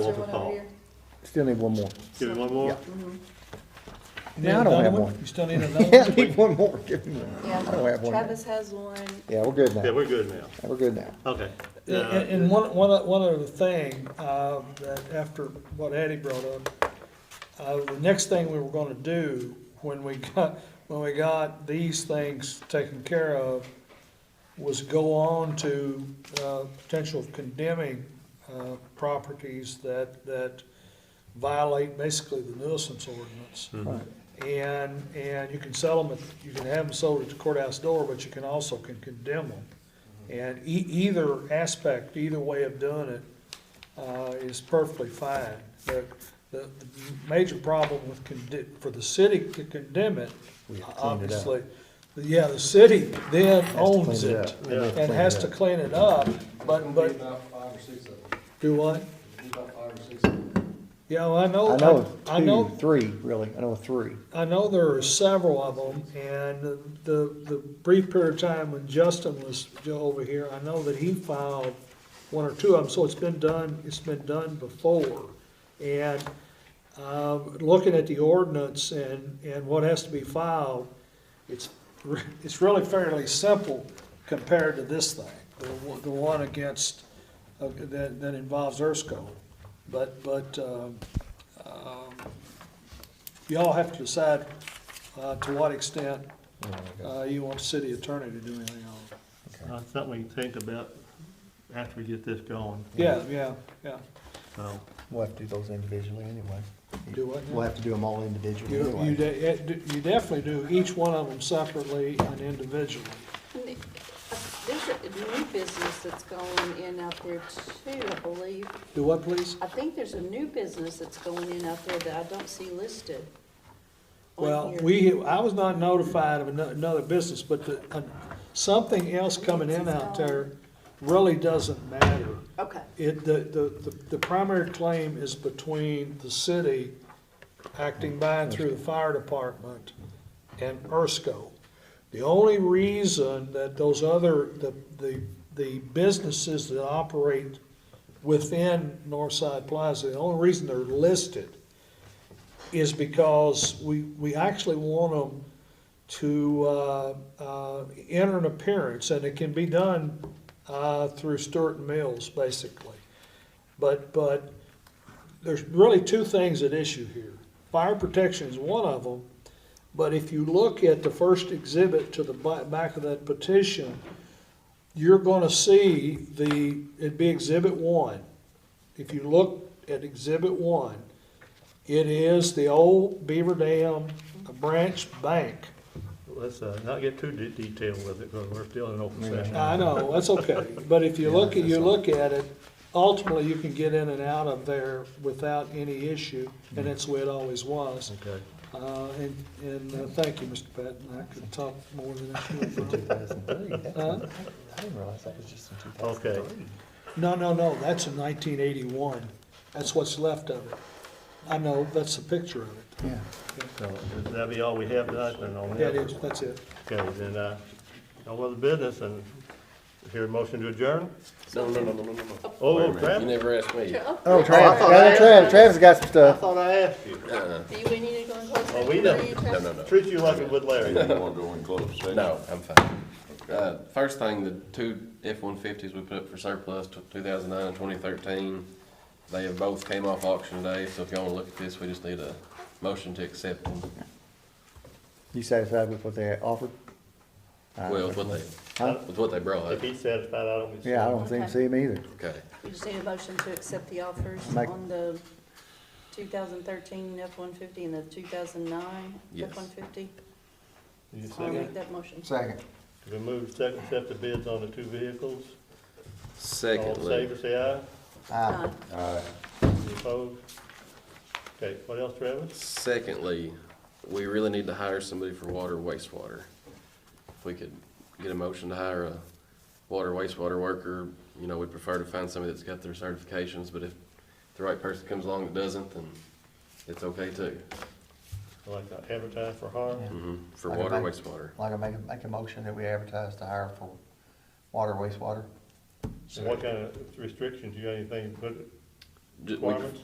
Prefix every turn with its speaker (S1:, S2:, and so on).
S1: Or
S2: Walter
S1: whatever
S2: Powell.
S1: your-
S3: Still need one more.
S2: Give me one more?
S3: Yeah.
S4: You need
S3: Now I don't
S4: another
S3: have one.
S4: You still need another
S3: Yeah, I
S4: one?
S3: need one more, give me one. I don't
S1: Yeah,
S3: have one.
S1: Travis has one.
S3: Yeah, we're good
S2: Yeah,
S3: now.
S2: we're good now.
S3: We're good now.
S2: Okay.
S4: And,
S2: Uh,
S4: and one, one, o- one other thing, uh, that after what Addie brought up, uh, the next thing we were gonna do when we got, when we got these things taken care of was go on to, uh, potential condemning, uh, properties that, that violate basically the nuisance ordinance.
S3: Right.
S4: And, and you can sell them, at- you can have them sold at the courthouse door, but you can also can condemn them.
S3: Mm-hmm.
S4: And e- either aspect, either way of doing it, uh, is perfectly fine. The, the the major problem with condi, for the city to condemn it,
S3: We have to clean it up.
S4: obviously, yeah, the city then
S3: Has to clean
S4: owns
S3: it
S4: it
S3: up.
S2: Yeah.
S3: Clean
S4: and
S3: it
S4: has
S3: up.
S4: to clean it up, but,
S5: It'll be
S4: but,
S5: about five or six of them,
S4: do what?
S5: It'll be about five or six of them.
S4: Yeah, well, I know.
S3: I know
S4: Oh, I know
S3: two, three, really. I know three.
S4: I know there are several of them, and the- the, the brief period of time when Justin was over here, I know that he filed one or two of them, so it's been done, it's been done before. And, um, looking at the ordinance and, and what has to be filed, it's, re- it's really fairly simple compared to this thing, the, one- the one against, uh, that, that involves Erskine. But, but, um, um, y'all have to decide uh, to what extent
S3: Oh,
S4: uh, you want the city attorney to do anything on it.
S2: That's uh, something we can think about after we get this going.
S4: Yeah, yeah, yeah,
S2: So,
S3: We'll have to do those individually anyway.
S4: do what?
S3: We'll have to do them all individually
S4: You, you
S3: anyway.
S4: de- eh, d- you definitely do each one of them separately and individually.
S1: There's a new business that's going in out there too, I believe.
S4: Do what, please?
S1: I think there's a new business that's going in out there that I don't see listed. on
S4: Well,
S1: here.
S4: we, I was not notified of ano- another business, but the, uh, something else coming in out there really doesn't matter.
S1: Okay,
S4: It, the, the, the- the primary claim is between the city acting by and through the fire department and ERSCO. The only reason that those other, the, the, the businesses that operate within Northside Plaza, the only reason they're listed is because we, we actually want them to, uh, uh, enter an appearance, and it can be done, uh, through Stewart and Mills, basically. But, but there's really two things at issue here. Fire protection is one of them, but if you look at the first exhibit to the ba- back of that petition, you're gonna see the, it'd be exhibit one. If you look at exhibit one, it is the old Beaver Dam Branch Bank.
S2: let's uh, not get too de- detailed with it, because we're still in open session.
S4: I know, that's okay, but if you look, at you look at it, ultimately, you can get in and out of there without any issue, and that's the way it always was.
S2: Okay.
S4: Uh, and, and uh, thank you, Mr. Patton, I could talk more than I
S3: In
S4: should.
S3: 2003, that's-
S4: Huh?
S3: I didn't realize that was just in two thousand
S2: Okay.
S3: three.
S4: No, no, no, that's in nineteen eighty-one, that's what's left of it. I know, that's a picture of it,
S3: Yeah.
S2: So that'll be all we have tonight, then, on that?
S4: that is, that's it.
S2: Okay, then, uh, no other business, and hear a motion to adjourn?
S6: No, no, no, no, no, no, no.
S2: Oh,
S6: Wait a minute,
S2: Travis.
S6: You never asked me.
S3: Oh,
S2: I
S3: Travis,
S2: thought
S3: yeah,
S2: I-
S3: Travis, Travis got some
S2: I
S3: stuff.
S2: thought I asked you.
S6: Uh-uh.
S1: do you, we need to go into closed
S2: Well,
S1: session?
S2: we
S1: What do you,
S2: don't-
S6: No,
S1: Travis?
S6: no, no.
S2: Treat you like a would Larry.
S7: You wanna go in closed session?
S6: No, I'm fine. Uh, first thing, the two F-150s we put up for surplus, t- 2009 and 2013, they have both came off auction today, so if y'all wanna look at this, we just need a motion to accept them.
S3: You satisfied with what they offered? I don't
S6: Well, with what
S3: know.
S6: they,
S3: Huh?
S6: with what they brought
S2: If
S6: up.
S2: he's satisfied, I don't. be
S3: Yeah, I don't seem,
S1: Okay.
S3: see him either.
S6: Okay.
S1: We just need a motion to accept the offers
S3: Make-
S1: on the two thousand thirteen F-150 and the two thousand nine
S6: Yes.
S1: F-150.
S2: You
S1: I'll make
S2: second?
S1: that motion.
S3: Second.
S2: We move second, accept the bids on the two vehicles. All in
S6: Secondly,
S2: favor, say aye.
S3: Aye.
S1: Aye.
S2: Any opposed? Okay, what else, Travis?
S6: secondly, we really need to hire somebody for water wastewater. If we could get a motion to hire a water wastewater worker, you know, we'd prefer to find somebody that's got their certifications, but if the right person comes along that doesn't, then it's okay too.
S2: Like I advertise for harm?
S6: hmm for
S7: Like a
S6: water,
S7: bank.
S6: wastewater.
S7: Like I make, a- make a motion that we advertise to hire for water wastewater.
S2: And what kind of restrictions, you got anything to put,
S6: ju- we-
S2: requirements?